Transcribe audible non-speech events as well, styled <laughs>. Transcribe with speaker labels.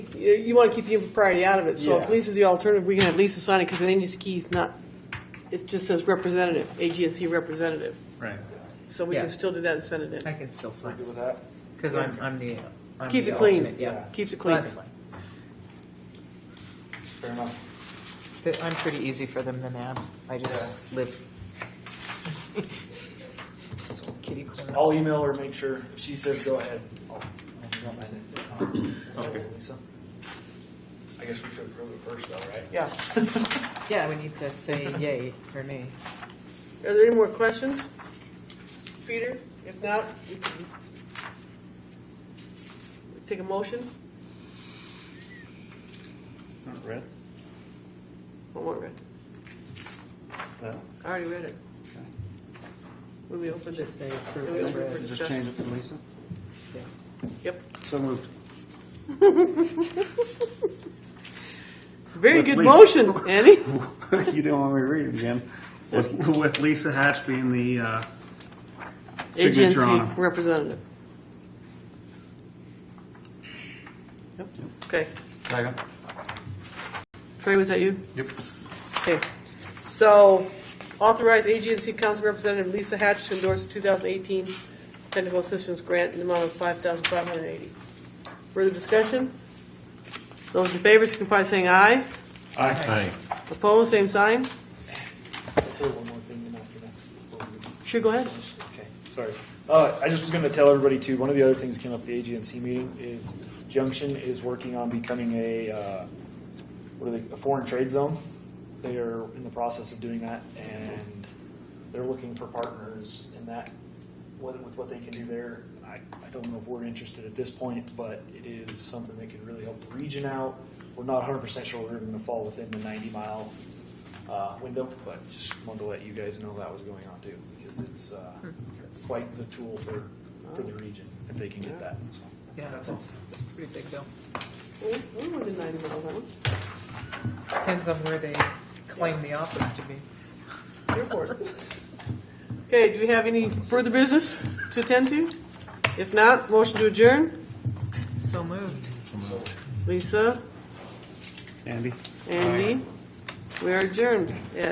Speaker 1: you, you want to keep the impropriety out of it, so if
Speaker 2: Yeah.
Speaker 1: Lisa's the alternative, we can have Lisa sign it, because the name is key is not, it just says representative, AGNC representative.
Speaker 3: Right.
Speaker 1: So we can
Speaker 2: Yeah.
Speaker 1: still do that and send it
Speaker 2: I
Speaker 1: in.
Speaker 2: can still sign,
Speaker 3: Good with that?
Speaker 2: because I'm, I'm the, I'm
Speaker 1: Keeps
Speaker 2: the
Speaker 1: it clean.
Speaker 2: alternate, yeah.
Speaker 1: Keeps it
Speaker 2: So
Speaker 1: clean.
Speaker 2: That's fine.
Speaker 3: Fair enough.
Speaker 2: Th- I'm pretty easy for them to nab, I just live. <laughs> Kitty corner.
Speaker 3: I'll email her, make sure, if she says go ahead. I'll- I'll sign it.
Speaker 4: Okay.
Speaker 3: So, I guess we should approve it first though, right?
Speaker 1: Yeah.
Speaker 2: Yeah, we need to say yay or nay.
Speaker 1: Are there any more questions? Peter, if not, we can take a motion?
Speaker 3: Not red?
Speaker 1: One more read.
Speaker 3: No.
Speaker 1: I already read it. When we opened it.
Speaker 2: Just say approve
Speaker 1: It was
Speaker 2: as read.
Speaker 1: approved.
Speaker 4: Just change it to Lisa?
Speaker 2: Yeah.
Speaker 1: Yep.
Speaker 4: So moved. <laughs>
Speaker 1: Very
Speaker 4: With
Speaker 1: good
Speaker 4: Lisa.
Speaker 1: motion, Andy.
Speaker 2: <laughs>
Speaker 4: You don't want me to read it again. With, with Lisa Hatch being the, uh, signature on
Speaker 1: Agency
Speaker 4: it.
Speaker 1: representative. Yep. Okay.
Speaker 4: Second.
Speaker 1: Trey, was that you?
Speaker 4: Yep.
Speaker 1: Okay. So authorize AGNC Council Representative Lisa Hatch to endorse the 2018 Technical Assistance Grant in the amount of 5580 Further discussion? Those in favor signify by saying aye.
Speaker 4: Aye.
Speaker 1: Opposed, same sign.
Speaker 3: Throw one more thing in after that.
Speaker 1: Sure, go ahead.
Speaker 3: Okay, sorry. Uh, I just was going to tell everybody too, one of the other things that came up at the AGNC meeting is Junction is working on becoming a, uh, what are they, a foreign trade zone. They are in the process of doing that and they're looking for partners in that, what- with what they can do there. I, I don't know if we're interested at this point, but it is something that could really help the region out. We're not hundred percent sure we're going to fall within the ninety mile uh, window, but just wanted to let you guys know that was going on too, because it's, uh, it's quite the tool for, for the region, if they can get that. so.
Speaker 2: Yeah, that's, that's a pretty big deal.
Speaker 1: We- we were denied about that.
Speaker 2: Depends on where they claim the office to be.
Speaker 1: Airport. Okay, do we have any further business to attend to? If not, motion to adjourn.
Speaker 2: So moved.
Speaker 1: Lisa,
Speaker 4: Andy?
Speaker 1: Andy, we are adjourned at